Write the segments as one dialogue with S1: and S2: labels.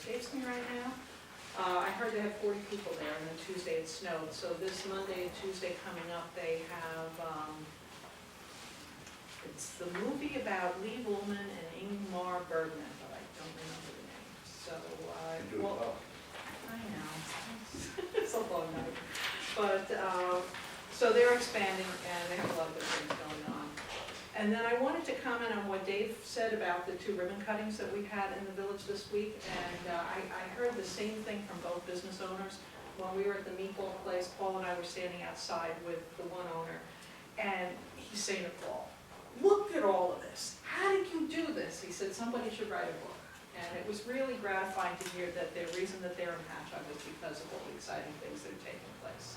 S1: open right now. Uh, I heard they have forty people there, and then Tuesday it snowed, so this Monday and Tuesday coming up, they have, um, it's the movie about Lee Woolman and Ingmar Bergman, but I don't remember the name, so, uh.
S2: and do it
S1: well-
S2: well.
S1: I know, it's a long night, but, uh, so they're expanding and they have a lot of good things going on. And then I wanted to comment on what Dave said about the two ribbon cuttings that we had in the village this week. And uh, I, I heard the same thing from both business owners. When we were at the meatball place, Paul and I were standing outside with the one owner. And he's saying to Paul, look at all of this. How did you do this? He said, somebody should write a book. And it was really gratifying to hear that the reason that they're in Patchogue is because of all the exciting things that are taking place.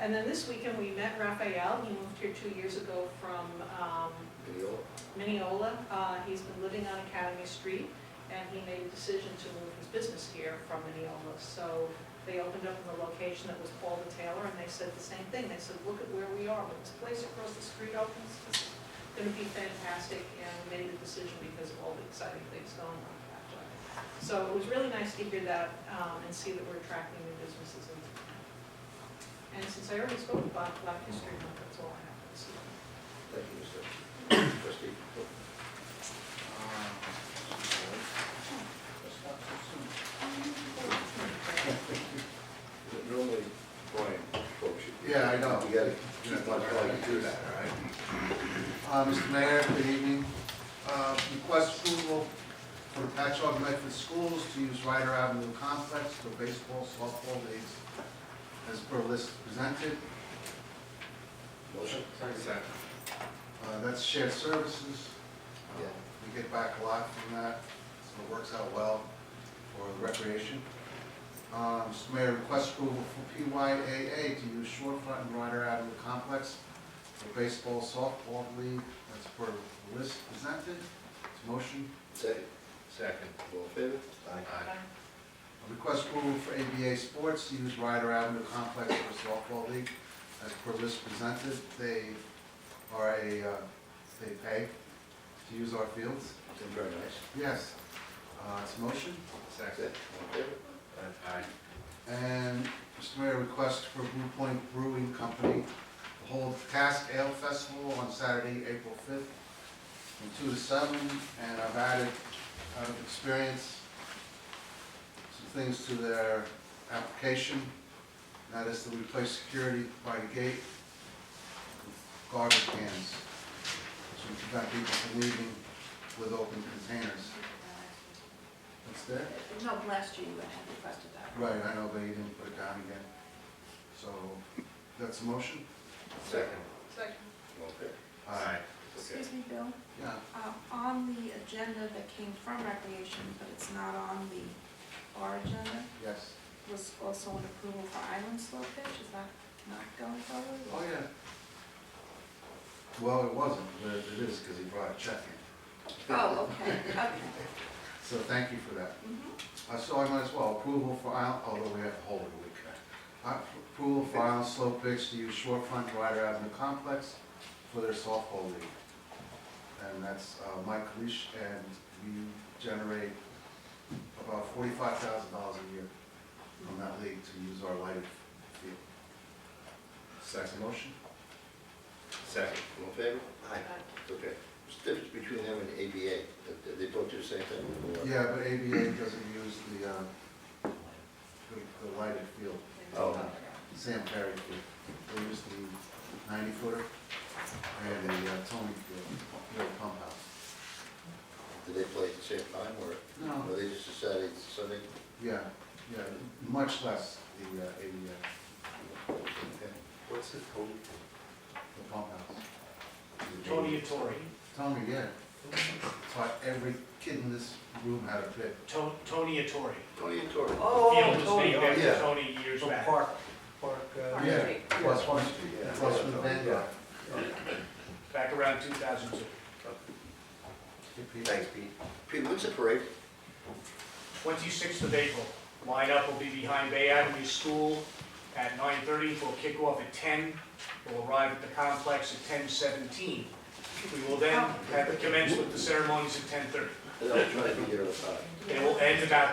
S1: And then this weekend, we met Raphael, he moved here two years ago from um,
S2: Video.
S1: Mineola. Uh, He's been living on Academy Street, and he made a decision to move his business here from Mineola. So they opened up in the location that was Paul the Taylor, and they said the same thing. They said, look at where we are, when this place across the street opens, it's gonna be fantastic, and we made the decision because of all the exciting things going on in Patchogue. So it was really nice to hear that um, and see that we're attracting new businesses into town. And since I already spoke about Black History Month, that's all I have to say.
S2: Thank you, Mr. Trustee. Normally, Brian, folks, you.
S3: Yeah, I know.
S2: You gotta,
S3: You're
S2: keep
S3: not
S2: on trying
S3: allowed
S2: to
S3: to do that, all right? Uh, Mr. Mayor, good evening. Uh, Request approval for Patchogue Medford Schools to use Ryder Avenue Complex for baseball, softball days as per list presented.
S2: Motion?
S3: Uh, That's shared services. Uh,
S2: Yeah.
S3: We get back a lot from that, so it works out well for the recreation. Um, Mr. Mayor, request approval for PYAA to use Shorefront and Ryder Avenue Complex for baseball, softball league, that's per list presented. It's motion.
S2: Second?
S4: Second.
S2: All in favor?
S4: Aye.
S3: Request approval for ABA Sports to use Ryder Avenue Complex for softball league, as per list presented. They are a, uh, they pay to use our fields.
S2: Been very nice.
S3: Yes, Uh, it's a motion.
S4: Second.
S2: Second? All in favor?
S4: Aye.
S3: And Mr. Mayor, request for Blue Point Brewing Company to hold Cask Ale Festival on Saturday, April 5th, from 2 to 7. And I've added, out of experience, some things to their application. That is to replace security by the gate with garbage cans, to prevent people from leaving with open containers. What's that?
S5: No, last year you had requested that.
S3: Right, I know, but you didn't put it down again. So, that's a motion?
S2: Second?
S1: Second.
S2: All in favor?
S4: Aye.
S2: Okay.
S5: Excuse me, Bill,
S3: Yeah,
S5: uh, on the agenda that came from recreation, but it's not on the our agenda,
S3: yes.
S5: was also an approval for island slope pitch, is that not going
S3: Oh,
S5: forward?
S3: yeah. Well, it wasn't, but it is, because he brought a check in.
S5: Oh, okay, okay.
S3: So thank you for that.
S5: Mhm.
S3: Uh, So I might as well, approval for Isle, although we have to hold it a week. Uh, Approval for Island Slope Pitch to use Shorefront Rider Avenue Complex for their softball league. And that's uh, Mike Leash, and we generate about forty-five thousand dollars a year from that league to use our lighted field. Second motion?
S4: Second.
S2: All in favor? Okay. What's the difference between them and ABA? They- They both do the same thing? or-
S3: Yeah, but ABA doesn't use the, uh, the- the lighted field.
S2: Oh.
S3: Sam Perry, they use the ninety footer and the uh, Tony field, the pump house.
S2: Do they play at the same time, or?
S3: No.
S2: Or they just decided Sunday?
S3: Yeah, yeah, much less the, uh, a, uh,
S2: Okay.
S4: What's it called?
S3: uh, the pump house.
S6: Tony Atori,
S3: Tony, yeah. Taught every kid in this room how to pitch.
S6: To- Tony Atori.
S2: Tony and Tori.
S1: Oh,
S6: Field was named
S2: yeah.
S6: after Tony years back.
S7: Park, park, uh,
S5: Park
S3: Yeah,
S5: Street.
S3: plus one, plus one band.
S2: Yeah.
S6: back around 2002.
S2: Thanks, Pete. Pete, when's the parade?
S6: 26th of April. Lineup will be behind Bay Avenue School at 9:30. We'll kick off at 10. We'll arrive at the complex at 10:17. We will then have commence with the ceremonies at 10:30.
S2: I was trying to figure it out.
S6: They will end about